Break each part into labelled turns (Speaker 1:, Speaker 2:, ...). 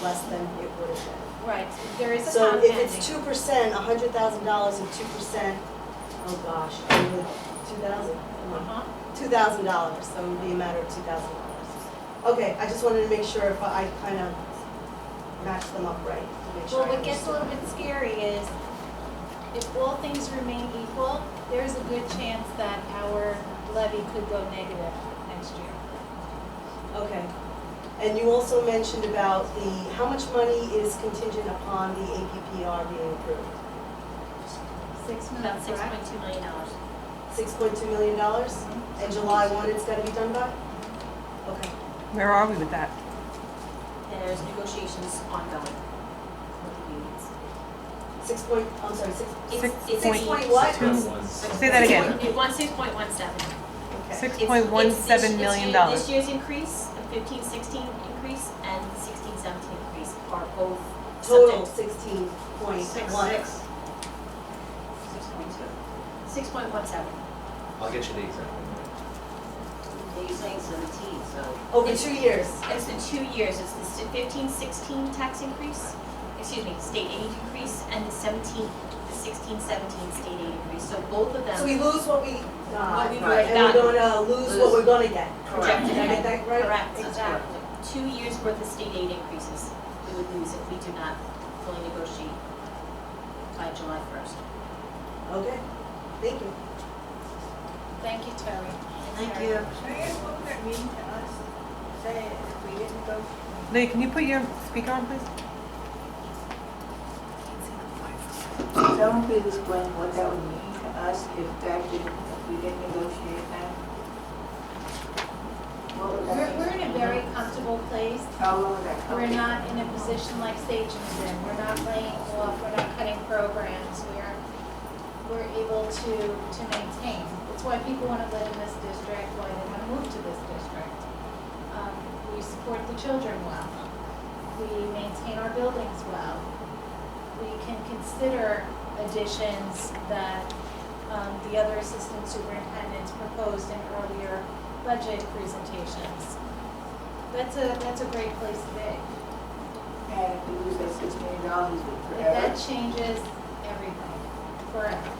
Speaker 1: less than it would have been.
Speaker 2: Right, there is a
Speaker 1: So if it's
Speaker 2: compounding.
Speaker 1: two percent, a hundred thousand dollars and two percent, oh gosh, two thousand, come on.
Speaker 2: Uh-huh.
Speaker 1: two thousand dollars, so it would be a matter of two thousand dollars. Okay, I just wanted to make sure if I kind of matched them up right, to make sure.
Speaker 2: Well,
Speaker 1: I
Speaker 2: what gets a
Speaker 1: understood.
Speaker 2: little bit scary is if all things remain equal, there's a good chance that our levy could go negative next year.
Speaker 1: Okay. And you also mentioned about the, how much money is contingent upon the APPR being approved?
Speaker 2: Six
Speaker 3: About
Speaker 2: minutes,
Speaker 3: six
Speaker 2: correct?
Speaker 3: point two million dollars.
Speaker 1: Six point two million dollars?
Speaker 2: Mm-hmm.
Speaker 1: And July one, it's gotta be done by? Okay.
Speaker 4: Where are we with that?
Speaker 3: There's negotiations ongoing with the unions.
Speaker 1: Six point, I'm sorry, six,
Speaker 3: It's-
Speaker 4: Six
Speaker 3: it's
Speaker 1: six
Speaker 3: the-
Speaker 1: point what?
Speaker 4: two. Say
Speaker 3: Six
Speaker 4: that again.
Speaker 3: point- It wants six point one seven.
Speaker 1: Okay.
Speaker 4: Six point one seven million dollars.
Speaker 3: This year's increase, the fifteen sixteen increase and the sixteen seventeen increase are both
Speaker 1: Total
Speaker 3: subject.
Speaker 1: sixteen point
Speaker 3: Six,
Speaker 1: one.
Speaker 3: six. Six point two. Six point one seven.
Speaker 5: I'll get you the exact one.
Speaker 6: They're saying seventeen, so
Speaker 1: Over two years.
Speaker 3: It's the two years, it's the si- fifteen sixteen tax increase, excuse me, state aid increase and the seventeen, the sixteen seventeen state aid increase, so both of them.
Speaker 1: So we lose what we got,
Speaker 3: What we
Speaker 1: right, and
Speaker 3: got.
Speaker 1: we're gonna lose what we're gonna get.
Speaker 3: Correct.
Speaker 1: Did I get that right?
Speaker 3: Correct,
Speaker 1: Exactly.
Speaker 3: exactly. Two years' worth of state aid increases we would lose if we do not fully negotiate by July first.
Speaker 1: Okay, thank you.
Speaker 2: Thank you, Terry.
Speaker 6: Thank
Speaker 2: Terry.
Speaker 6: you.
Speaker 7: Can I ask what would that mean to us, say if we didn't go
Speaker 4: Lee, can you put your speaker on, please?
Speaker 7: Someone please explain what that would mean to us if that didn't, if we didn't negotiate that? What would
Speaker 2: We're,
Speaker 7: that
Speaker 2: we're in a very
Speaker 7: mean?
Speaker 2: comfortable place.
Speaker 7: How would that come?
Speaker 2: We're not in a position like Sagem's in. We're not laying off, we're not cutting programs, we're, we're able to, to maintain. It's why people want to live in this district, why they want to move to this district. Um, We support the children well. We maintain our buildings well. We can consider additions that um, the other assistant superintendents proposed in earlier budget presentations. That's a, that's a great place to be.
Speaker 7: And if we lose that six million dollars, we
Speaker 2: If
Speaker 7: forever
Speaker 2: that changes everything, forever,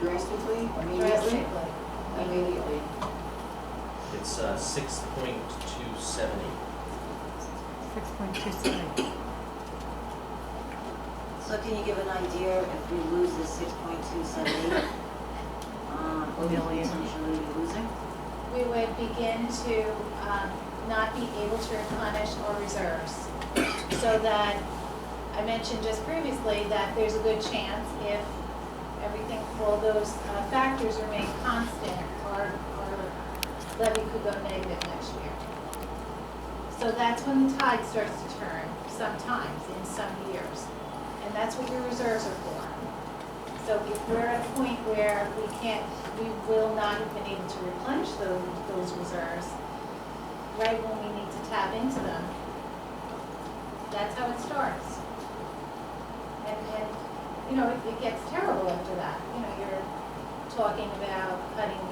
Speaker 7: drastically, immediately,
Speaker 2: drastically.
Speaker 7: immediately.
Speaker 5: It's uh, six point two seven eight.
Speaker 4: Six point two seven.
Speaker 6: so can you give an idea if we lose this six point two seven eight? Um, what we potentially be losing?
Speaker 2: We would begin to um, not be able to replenish our reserves. So that, I mentioned just previously that there's a good chance if everything, all those uh, factors remain constant, our, our levy could go negative next year. So that's when the tide starts to turn sometimes in some years. And that's what your reserves are for. So if we're at a point where we can't, we will not have been able to replenish those, those reserves, right when we need to tap into them, that's how it starts. And, and, you know, it, it gets terrible after that. You know, you're talking about cutting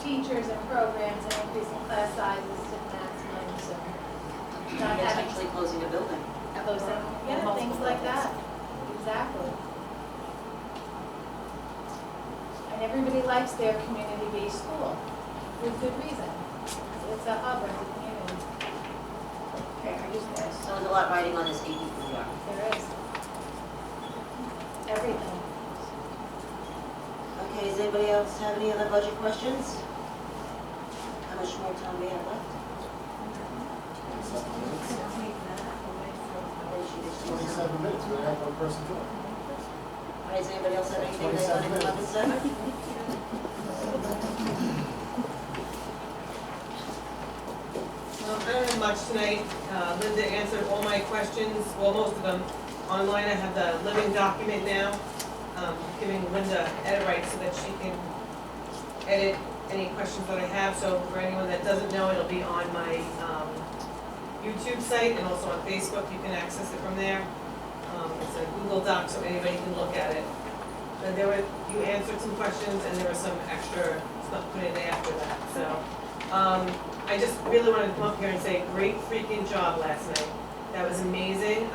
Speaker 2: teachers and programs and increasing class sizes to maximums and not having
Speaker 6: Potentially closing a building.
Speaker 2: those, yeah,
Speaker 6: Multiple
Speaker 2: things like that.
Speaker 6: levels.
Speaker 2: Exactly. And everybody likes their community-based school, with good reason. It's a hub of the community,
Speaker 7: Okay, I just asked.
Speaker 6: So there's a lot riding on this APPR.
Speaker 2: there is. Everything.
Speaker 6: Okay, does anybody else have any other budget questions? How much more time we have left? Then she just-
Speaker 8: Twenty-seven minutes, we have one person do it.
Speaker 6: All right, does anybody else have anything they want to come up and say?
Speaker 9: Um, I don't have much tonight. Uh, Linda answered all my questions, well, most of them. Online, I have the living document now, um, giving Linda edit rights so that she can edit any questions that I have. So for anyone that doesn't know, it'll be on my um, YouTube site and also on Facebook. You can access it from there. Um, It's a Google Doc, so anybody can look at it. And there were, you answered some questions and there was some extra stuff put in after that, so. um, I just really wanted to come up here and say, great freaking job last night.
Speaker 1: That was amazing.